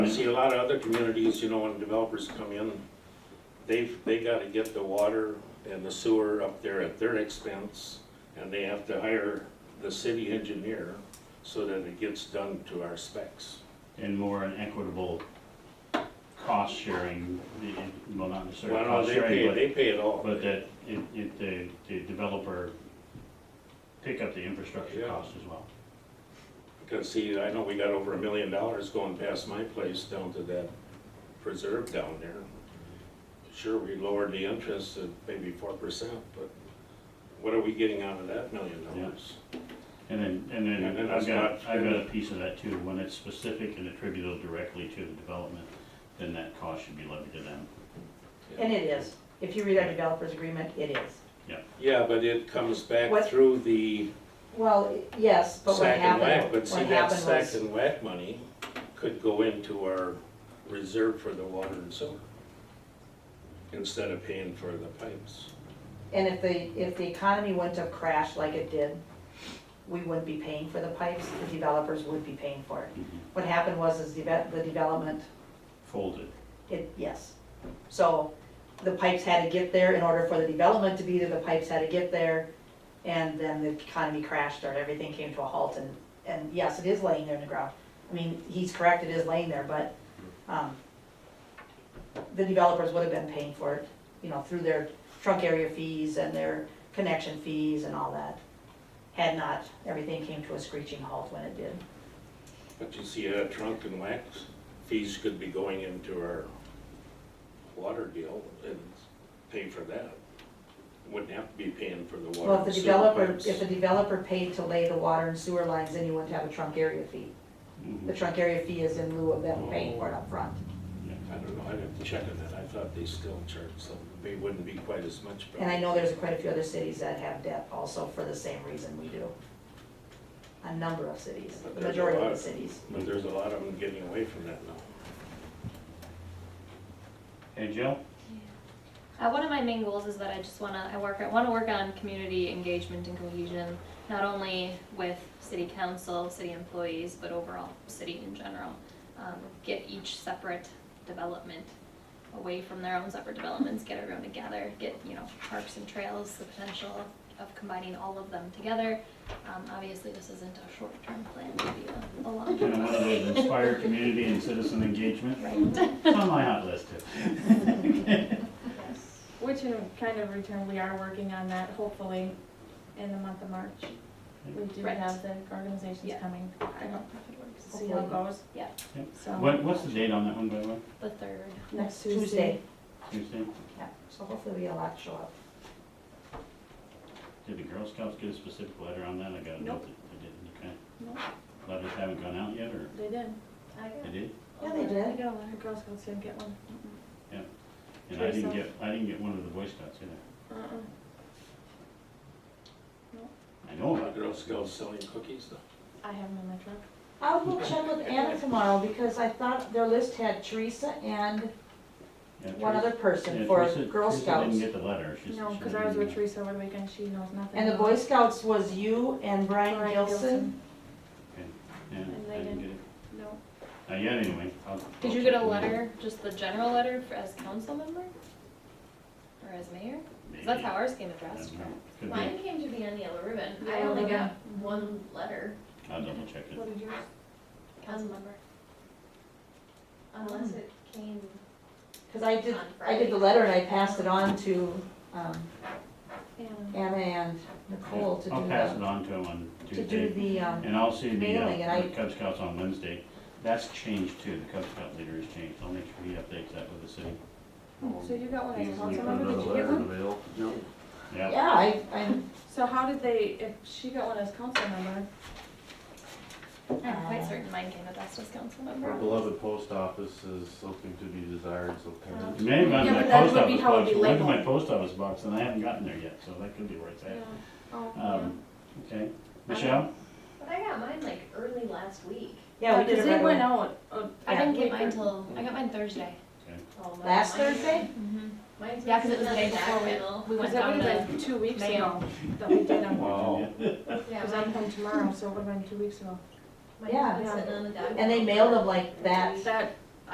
I see a lot of other communities, you know, when developers come in, they've, they gotta get the water and the sewer up there at their expense, and they have to hire the city engineer so that it gets done to our specs. and more an equitable cost sharing, the- well, not necessarily Well, no, cost they pay, sharing, they pay it all. but, but that it, it, the, the developer pick up the infrastructure Yeah. cost as well. Because see, I know we got over a million dollars going past my place down to that preserve down there. Sure, we lowered the interest to maybe four percent, but what are we getting out of that million dollars? And then, and And then then I've it's got, not- I've got a piece of that too, when it's specific and attributable directly to the development, then that cost should be levied to them. And it is. If you read our developer's agreement, it is. Yeah, but it comes back What- through the Well, yes, but what sack and whack, happened, but see, what that happened sack was, and whack money could go into our reserve for the water and sewer instead of paying for the pipes. and if the, if the economy went to crash like it did, we wouldn't be paying for the pipes, the developers would be paying for it. Mm-hmm. What happened was is the, ve- the development, Folded, it, yes. So the pipes had to get there in order for the development to be there, the pipes had to get there, and then the economy crashed or everything came to a halt and, and yes, it is laying there in the ground. I mean, he's correct, it is laying there, but, um, the developers would have been paying for it, you know, through their trunk area fees and their connection fees and all that. Had not, everything came to a screeching halt when it did. But you see, uh, trunk and whack fees could be going into our water deal and pay for that. Wouldn't have to be paying for the water. Well, if the and sewer developer, pipes. if the developer paid to lay the water and sewer lines, then you wouldn't have a trunk area fee. Mm-hmm. The trunk area fee is in lieu of them Oh. paying for it upfront. I don't know, I'd have to check on that, I thought they still charge some, they wouldn't be quite as much. but- And I know there's quite a few other cities that have debt also for the same reason we do. A number of cities, But the there's a majority of lot. the cities. But there's a lot of them getting away from that now. hey Jill? Uh, one of my main goals is that I just wanna I work I wanna work on community engagement and cohesion, not only with city council, city employees, but overall city in general. Um, get each separate development away from their own separate developments, get everyone together, get you know parks and trails, the potential of combining all of them together. Um, obviously, this isn't a short-term plan; maybe a, a Kind of one of those long-term. inspire community and citizen engagement, right. it's on my hot list too. Which in kind of return, we are working on that hopefully in the month of March. We do Right. have the organizations Yeah. coming, I don't know if it works. see how it goes. Yeah. Yep. So. What, what's the date on that one, by the way, The third. Next Tuesday, Tuesday? yeah, so hopefully we have a lot to show up. Did the Girl Scouts get a specific letter on that? I got a note Nope. that they didn't, okay. Nope. Letters haven't gone out yet, or They did. I they got. did? Yeah, they did. I got one. The Girl Scouts didn't get one. And I didn't Teresa. get, I didn't get one of the Boy Scouts either. Uh-uh. I know about Girl Scouts selling cookies though. I have them in my truck. I'll go check with Anna tomorrow because I thought their list had Teresa and it. one other person for Girl Teresa Scouts. didn't get the letter. She- No, she because didn't I was get with it. Teresa over the weekend. She knows nothing. And the about Boy Scouts was you and Brian Brian Gilson. and Yeah, they I didn't get it. No. Not yet, anyway. I'll- Did I'll you get check a with letter, just the general letter for, as council member? Or as mayor? 'Cause that's Maybe. how ours came I addressed. don't know. Could be. Mine came to be on yellow ribbon. I Yellow only ribbon. got one letter, I'll double check it. What did yours? Council member. Hmm. unless it came Cause I did, on I did Friday. the letter and I passed it on to, um, And Anna and Nicole to do I'll pass it the, on to them on to do Tuesday, the, um, and I'll see the, mailing, and uh, I- the Cub Scouts on Wednesday. That's changed too, the Cub Scout leader has changed. I'll make sure he updates that with the city. Oh, Oh, So you got one as a Easily council put member? Did another you get letter in one? the mail. Yeah, yeah, I, I'm, So how did they, if she got one as council member, I'm Uh, quite certain mine came addressed as council Our member. beloved post office is something to be desired sometimes. It may have gone to Yeah, my but that post would be office how it'd box. be It went to my labeled. post office box, and I haven't gotten there yet, so that could be where it's Yeah. at. Oh, yeah. Um, okay, Michelle? But I got mine like early last week. yeah, we did Because it right they away. went out. uh, I didn't get like, mine till, I got mine Thursday. Oh, my- Last mine- Thursday? Mine's. Yeah, cause it was the not day that before middle. we, we went Because that down would have to been two weeks Mayo. ago that we did them. Wow. Yeah, Because I'm home tomorrow, so it would have been two weeks ago. mine- mine's Yeah. been sitting on the dock. And they mailed them like that, That